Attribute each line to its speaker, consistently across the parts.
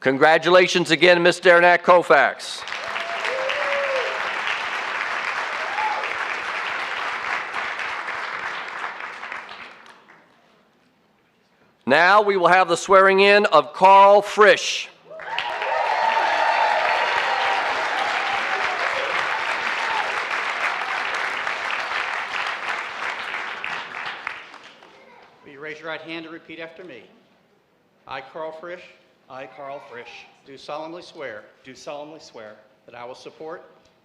Speaker 1: Congratulations again, Ms. Derenak Kofax. Now, we will have the swearing-in of Carl Frisch.
Speaker 2: Will you raise your right hand and repeat after me? I, Carl Frisch,
Speaker 3: I, Carl Frisch,
Speaker 2: do solemnly swear
Speaker 3: do solemnly swear
Speaker 2: that I will support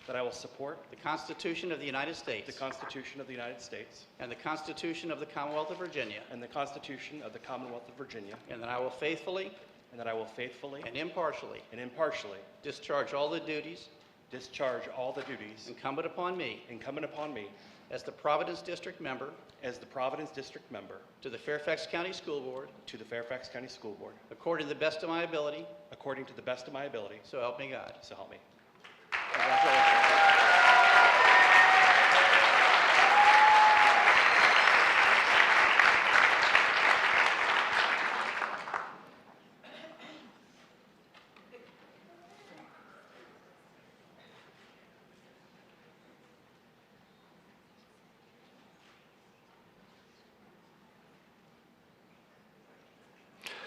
Speaker 3: that I will support
Speaker 2: the Constitution of the United States
Speaker 3: the Constitution of the United States
Speaker 2: and the Constitution of the Commonwealth of Virginia,
Speaker 3: and the Constitution of the Commonwealth of Virginia,
Speaker 2: and that I will faithfully
Speaker 3: and that I will faithfully
Speaker 2: and impartially
Speaker 3: and impartially
Speaker 2: discharge all the duties
Speaker 3: discharge all the duties
Speaker 2: incumbent upon me
Speaker 3: incumbent upon me
Speaker 2: as the Providence District Member
Speaker 3: as the Providence District Member
Speaker 2: to the Fairfax County School Board
Speaker 3: to the Fairfax County School Board,
Speaker 2: according to the best of my ability,
Speaker 3: according to the best of my ability,
Speaker 2: so help me God.
Speaker 3: so help me.
Speaker 2: Congratulations.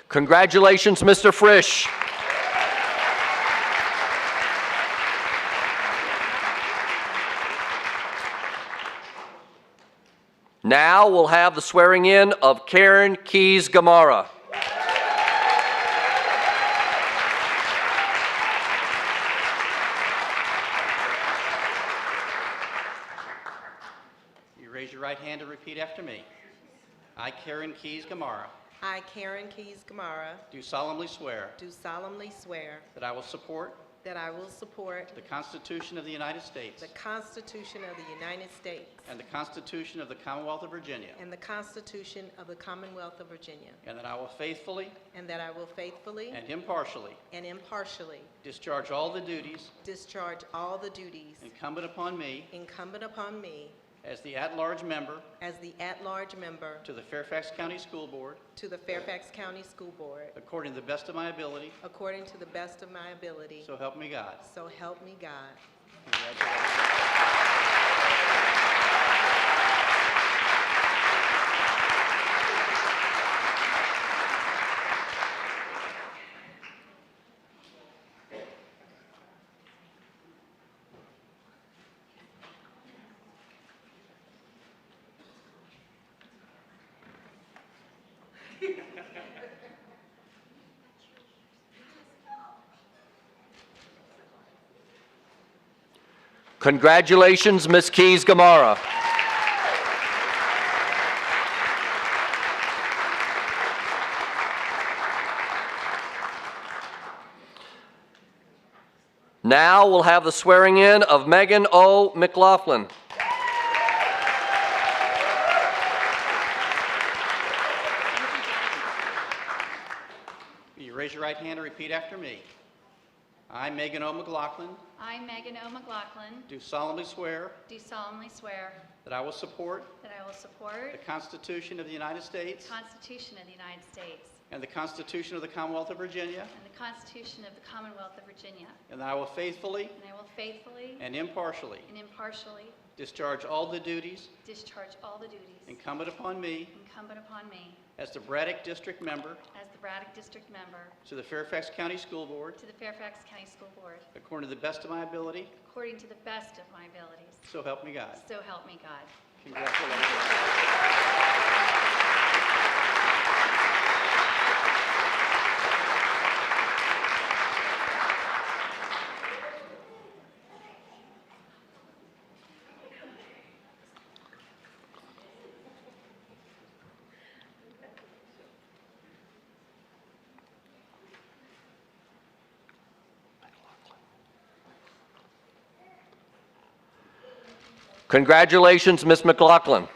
Speaker 1: Congratulations, Mr. Frisch. Now we'll have the swearing-in of Karen Keys Gamara.
Speaker 2: You raise your right hand and repeat after me. I, Karen Keys Gamara,
Speaker 4: I, Karen Keys Gamara,
Speaker 2: do solemnly swear
Speaker 4: do solemnly swear
Speaker 2: that I will support
Speaker 4: that I will support
Speaker 2: the Constitution of the United States
Speaker 4: the Constitution of the United States
Speaker 2: and the Constitution of the Commonwealth of Virginia,
Speaker 4: and the Constitution of the Commonwealth of Virginia,
Speaker 2: and that I will faithfully
Speaker 4: and that I will faithfully
Speaker 2: and impartially
Speaker 4: and impartially
Speaker 2: discharge all the duties
Speaker 4: discharge all the duties
Speaker 2: incumbent upon me
Speaker 4: incumbent upon me
Speaker 2: as the at-large member
Speaker 4: as the at-large member
Speaker 2: to the Fairfax County School Board
Speaker 4: to the Fairfax County School Board,
Speaker 2: according to the best of my ability,
Speaker 4: according to the best of my ability,
Speaker 2: so help me God.
Speaker 4: so help me God.
Speaker 1: Congratulations, Ms. Keys Gamara. Now we'll have the swearing-in of Megan O. McLaughlin.
Speaker 2: Will you raise your right hand and repeat after me? I, Megan O. McLaughlin,
Speaker 5: I, Megan O. McLaughlin,
Speaker 2: do solemnly swear
Speaker 5: do solemnly swear
Speaker 2: that I will support
Speaker 5: that I will
Speaker 2: the
Speaker 5: support
Speaker 2: Constitution of the United States
Speaker 5: the Constitution of the United States
Speaker 2: and the Constitution of the Commonwealth of Virginia,
Speaker 5: and the Constitution of the Commonwealth of Virginia,
Speaker 2: and that I will faithfully
Speaker 5: and I will faithfully
Speaker 2: and impartially
Speaker 5: and impartially
Speaker 2: discharge all the duties
Speaker 5: discharge all the duties
Speaker 2: incumbent upon me
Speaker 5: incumbent upon me
Speaker 2: as the Braddock District Member
Speaker 5: as the Braddock District Member
Speaker 2: to the Fairfax County School Board
Speaker 5: to the Fairfax County School Board,
Speaker 2: according to the best of my ability,
Speaker 5: according to the best of my abilities.
Speaker 2: so help me God.
Speaker 5: So help me God.
Speaker 2: Congratulations.
Speaker 1: Congratulations, Ms. McLaughlin.